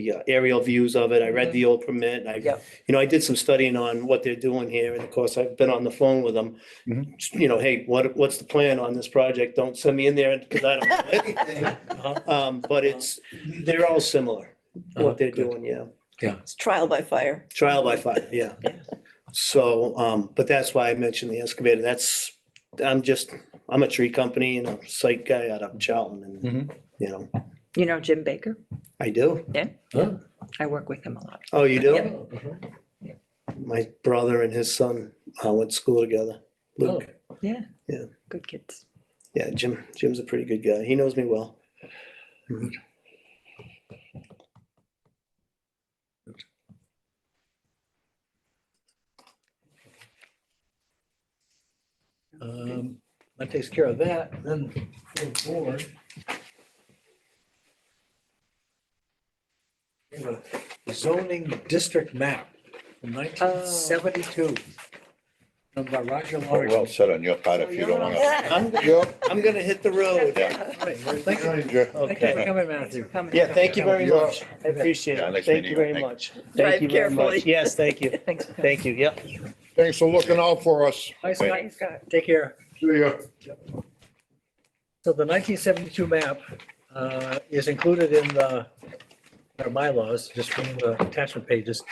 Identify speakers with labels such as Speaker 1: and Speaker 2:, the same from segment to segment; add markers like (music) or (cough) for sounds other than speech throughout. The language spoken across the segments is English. Speaker 1: the uh, aerial views of it. I read the old permit. I,
Speaker 2: Yep.
Speaker 1: you know, I did some studying on what they're doing here. And of course, I've been on the phone with them. You know, hey, what, what's the plan on this project? Don't send me in there because I don't know anything. Um, but it's, they're all similar,
Speaker 3: Uh-huh,
Speaker 1: what they're
Speaker 3: good.
Speaker 1: doing, yeah.
Speaker 2: It's trial by fire.
Speaker 1: Trial by fire, yeah. So, um, but that's why I mentioned the excavator. That's, I'm just, I'm a tree company and a site guy out of Charlton and, you know,
Speaker 4: You know Jim Baker?
Speaker 1: I do.
Speaker 3: Oh,
Speaker 4: I work with him a lot.
Speaker 1: Oh, you do?
Speaker 3: uh-huh.
Speaker 1: My brother and his son uh, went to school together. Luke.
Speaker 4: Yeah.
Speaker 1: Yeah.
Speaker 4: Good kids.
Speaker 1: Yeah, Jim. Jim's a pretty good guy. He knows me well.
Speaker 3: Um, That takes care of that, then move forward. We have a Zoning district map from nineteen seventy-two. From the Roger
Speaker 5: Well,
Speaker 3: Lawrence.
Speaker 5: Well said on your part if you don't want to.
Speaker 1: I'm,
Speaker 5: Yep.
Speaker 1: I'm gonna hit the road.
Speaker 5: Yeah.
Speaker 3: Right, well, Thank you
Speaker 5: Yeah,
Speaker 3: thank you for
Speaker 1: Okay.
Speaker 3: coming, Matthew.
Speaker 1: Yeah, thank you very
Speaker 5: You're-
Speaker 1: much. I appreciate
Speaker 5: Yeah,
Speaker 1: it.
Speaker 5: next
Speaker 1: Thank
Speaker 5: meeting,
Speaker 1: you very
Speaker 5: thank-
Speaker 1: much. Thank
Speaker 4: Drive
Speaker 1: you very much.
Speaker 4: carefully.
Speaker 1: Yes, thank you.
Speaker 4: Thanks for coming.
Speaker 1: Thank you. Yep.
Speaker 5: Thanks for looking out for us.
Speaker 3: Hi, Scott.
Speaker 4: Thanks, Scott.
Speaker 3: Take care.
Speaker 5: See ya.
Speaker 3: So the nineteen seventy-two map uh, is included in the, our bylaws, just from the attachment pages.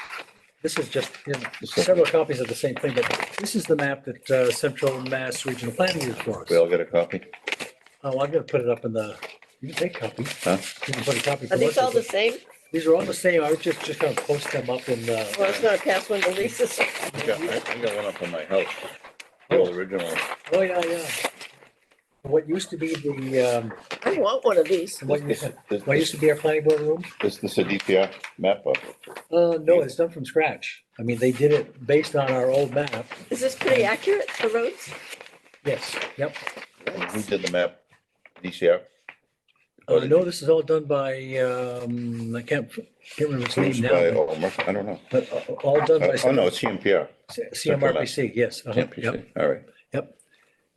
Speaker 3: This is just, you know, there's several copies of the same thing, but this is the map that uh, Central Mass Regional Planning used for us.
Speaker 5: We all get a copy?
Speaker 3: Oh, I'm gonna put it up in the, you can take copy.
Speaker 5: Huh?
Speaker 3: You can put a copy. for
Speaker 2: Are these
Speaker 3: most
Speaker 2: all the
Speaker 3: of them.
Speaker 2: same?
Speaker 3: These are all the same, I was just, just gonna post them up in
Speaker 2: Well, I was
Speaker 3: the,
Speaker 2: gonna pass one to Lisa. so-
Speaker 5: Yeah, I I got one up in my house. The old original.
Speaker 3: oh, yeah, yeah. What used to be the, um,
Speaker 2: (laughs) I want one of these.
Speaker 3: what
Speaker 5: Is
Speaker 3: used,
Speaker 5: is
Speaker 3: what used to
Speaker 5: this,
Speaker 3: be our planning board room?
Speaker 5: is this a DPR map of?
Speaker 3: Uh, no, it's done from scratch. I mean, they did it based on our old map.
Speaker 2: Is this pretty accurate, the roads?
Speaker 3: Yes, yep.
Speaker 5: Who did the map? DCR?
Speaker 3: Uh, no, this is all done by, um, I can't, can't remember its name
Speaker 5: Produced by
Speaker 3: now,
Speaker 5: Olmer? I don't know.
Speaker 3: but uh, all done by.
Speaker 5: Uh, Oh, no, it's CMPR.
Speaker 3: C- CMRPC, yes. uh-huh, yep.
Speaker 5: CMPC, all right.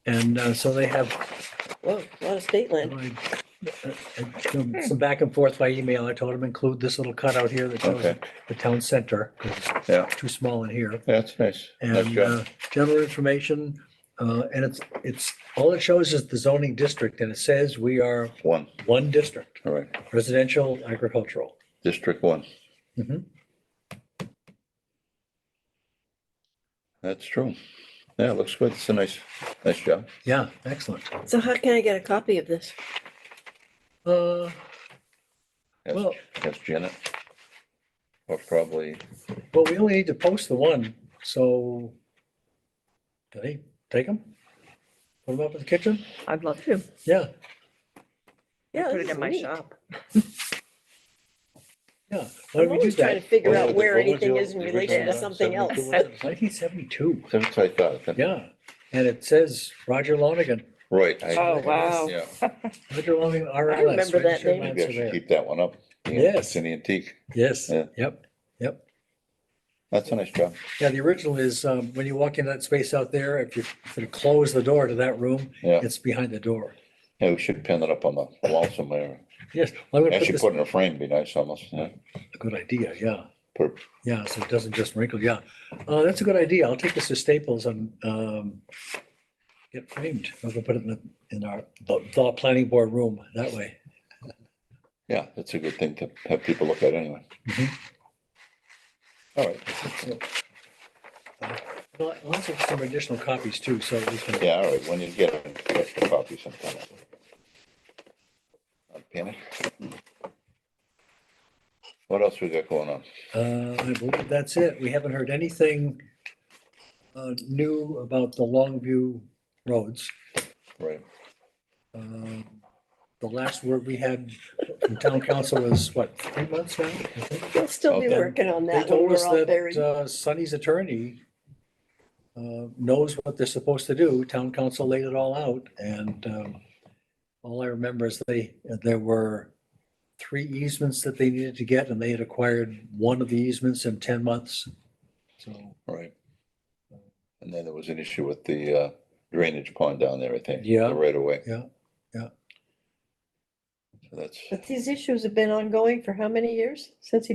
Speaker 3: And, uh, so they have uh,
Speaker 2: Whoa, a lot of state land.
Speaker 3: Some some back and forth by email. I told him include this little cutout here that shows
Speaker 5: Okay.
Speaker 3: the town center. 'cause it's
Speaker 5: Yeah.
Speaker 3: Too small in here.
Speaker 5: That's nice. Nice
Speaker 3: And
Speaker 5: job.
Speaker 3: uh, general information, uh, and it's, it's, all it shows is the zoning district and it says we are
Speaker 5: One,
Speaker 3: one district,
Speaker 5: all right.
Speaker 3: residential, agricultural.
Speaker 5: District one.
Speaker 3: Mhm.
Speaker 5: That's true. Yeah, it looks good. It's a nice, nice job.
Speaker 3: Yeah, excellent.
Speaker 2: So how can I get a copy of this?
Speaker 3: Uh,
Speaker 5: That's-
Speaker 3: Well-
Speaker 5: That's Janet. Or probably,
Speaker 3: Well, we only need to post the one, so do they take them? Put them up in the kitchen?
Speaker 4: I'd love to.
Speaker 3: Yeah,
Speaker 2: Yeah.
Speaker 4: Put it
Speaker 2: this
Speaker 4: in
Speaker 2: is
Speaker 4: my
Speaker 2: neat.
Speaker 4: shop.
Speaker 1: (laughs)
Speaker 3: yeah. Why
Speaker 2: I'm
Speaker 3: don't we do
Speaker 2: always trying to
Speaker 3: that?
Speaker 2: figure
Speaker 5: What
Speaker 2: out
Speaker 5: was it-
Speaker 2: where
Speaker 5: what was
Speaker 2: anything
Speaker 5: your
Speaker 2: is in relation to
Speaker 5: original, uh,
Speaker 2: something else.
Speaker 3: Nineteen seventy-two,
Speaker 5: that's what I thought. that-
Speaker 3: yeah. And it says Roger Lonigan,
Speaker 5: Right. I-
Speaker 2: Oh, wow.
Speaker 5: Yeah.
Speaker 3: Roger Lonigan,
Speaker 2: I
Speaker 3: RLS.
Speaker 2: remember that
Speaker 3: registered
Speaker 2: name.
Speaker 3: land
Speaker 5: Maybe I should
Speaker 3: surveyor.
Speaker 5: keep that one up. Yeah,
Speaker 3: Yes.
Speaker 5: It's an antique.
Speaker 3: Yes,
Speaker 5: Yeah.
Speaker 3: yep.
Speaker 5: That's a nice job.
Speaker 3: Yeah, the original is, um, when you walk into that space out there, if you, if you close the door to that room,
Speaker 5: Yeah.
Speaker 3: it's behind the door.
Speaker 5: Yeah, we should pin it up on the wall somewhere.
Speaker 3: Yes, well, I'm gonna (laughs) put
Speaker 5: Actually,
Speaker 3: this,
Speaker 5: put it in a frame, be nice almost. yeah.
Speaker 3: good idea, yeah.
Speaker 5: Put-
Speaker 3: Yeah, so it doesn't just wrinkle, yeah. Uh, that's a good idea. I'll take this to Staples and, um, get framed. I'm gonna put it in the, in our, the, the planning board room, that way.
Speaker 5: Yeah, that's a good thing to have people look at anyway.
Speaker 3: Mhm.
Speaker 5: All right.
Speaker 3: Well, I'll also have some additional copies too, so we can,
Speaker 5: Yeah, all right, when you get it, get the copy sometime. Not Panic. What else we got going on?
Speaker 3: uh, I believe that's it. We haven't heard anything uh, new about the Longview roads.
Speaker 5: Right,
Speaker 3: Um, The last word we had from town council was what, three months now? I think?
Speaker 2: We'll still be
Speaker 5: Okay.
Speaker 2: working on
Speaker 3: They
Speaker 2: that when
Speaker 3: told
Speaker 2: we're
Speaker 3: us
Speaker 2: all buried.
Speaker 3: that uh, Sonny's attorney uh, knows what they're supposed to do. Town council laid it all out and um, all I remember is they, there were three easements that they needed to get and they had acquired one of the easements in ten months. So,
Speaker 5: right. And then there was an issue with the uh, drainage pond down there, I think.
Speaker 3: Yeah.
Speaker 5: Right away.
Speaker 3: Yeah, yeah.
Speaker 6: that's.
Speaker 2: But these issues have been ongoing for how many years? Since he